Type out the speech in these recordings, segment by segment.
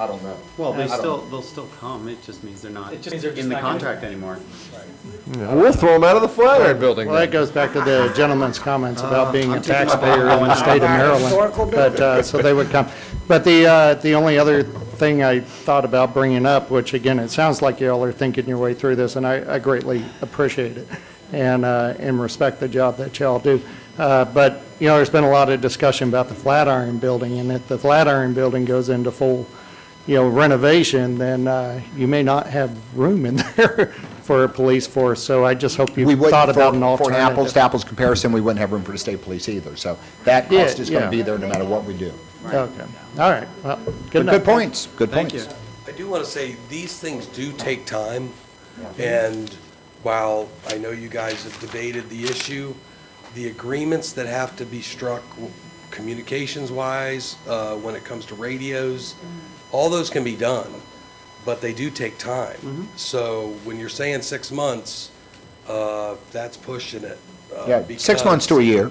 I don't know. Well, they I don't still, know. they'll still come, it just means they're not It just means they're just in the not gonna- contract anymore. We'll throw them out of the Flatiron Building Well, that goes back to the gentleman's comments about being a taxpayer in the state of Historical Maryland. But, uh, so they would come. But the, uh, the only other thing I thought about bringing up, which again, it sounds like y'all are thinking your way through this, and I I greatly appreciate it and, uh, and respect the job that y'all do. Uh, But, you know, there's been a lot of discussion about the Flatiron Building, and if the Flatiron Building goes into full, you know, renovation, then uh, you may not have room in there for a police force. So I just hope you We thought wouldn't, about for, for an an alternative. apples to apples comparison, we wouldn't have room for the state police either. So that Yeah, cost is going yeah. to be there no matter what we do. Okay, all right, well, good But enough. good points, good Thank points. you. I do want to say, these things do take time, and while I know you guys have debated the issue, the agreements that have to be struck communications-wise, uh, when it comes to radios, Mm-hmm. all those can be done, but they do take Mm-hmm. time. So when you're saying six months, uh, that's pushing it. uh, Yeah, six because- months to a year.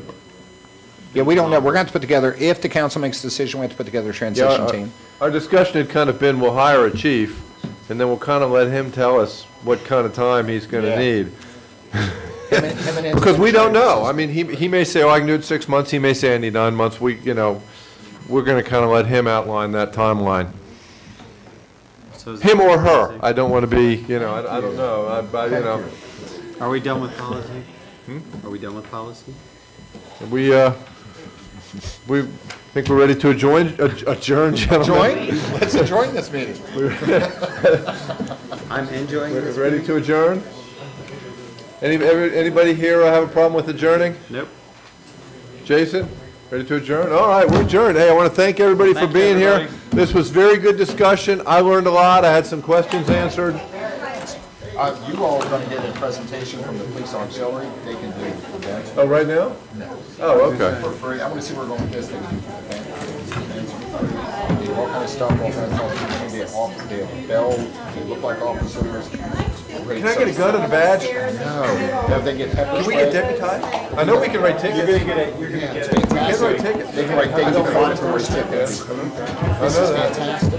Yeah, we don't know. We're going to have to put together, if the council makes a decision, we have to put together a transition team. uh, Our discussion had kind of been, we'll hire a chief, and then we'll kind of let him tell us what kind of time he's going to Yeah. need. Him and- him and- Because we don't know. I mean, he, he may say, oh, I can do it in six months. He may say, I need nine months. We, you know, we're going to kind of let him outline that timeline. So is- Him or her. I don't want to be, you know, I, I don't know. I, I, you know, Are we done with policy? Hmm? Are we done with policy? we, uh, we think we're ready to adjourn, uh, adjourn, gentlemen. Join, let's join this meeting. I'm enjoying We're this. Ready to adjourn? Any, every- anybody here uh, have a problem with adjourning? Nope. Jason, ready to adjourn? All right, we're adjourned. Hey, I want to thank everybody for Thank you, being here. everybody. This was very good discussion. I learned a lot. I had some questions answered. Uh, You all are going to get a presentation from the police auxiliary. They can do it, okay? Oh, right now? Oh, okay. For free. I want to see where we're going with this thing. All kind of stuff, all kinds of, stuff. they have off- they have bell, they look like officers. Can I get a gun and a badge? No, if they get pepper spray. deputized? I know we can write tickets. You're gonna get it, you're gonna get it. We can write tickets. They can write things on tickets. I know that.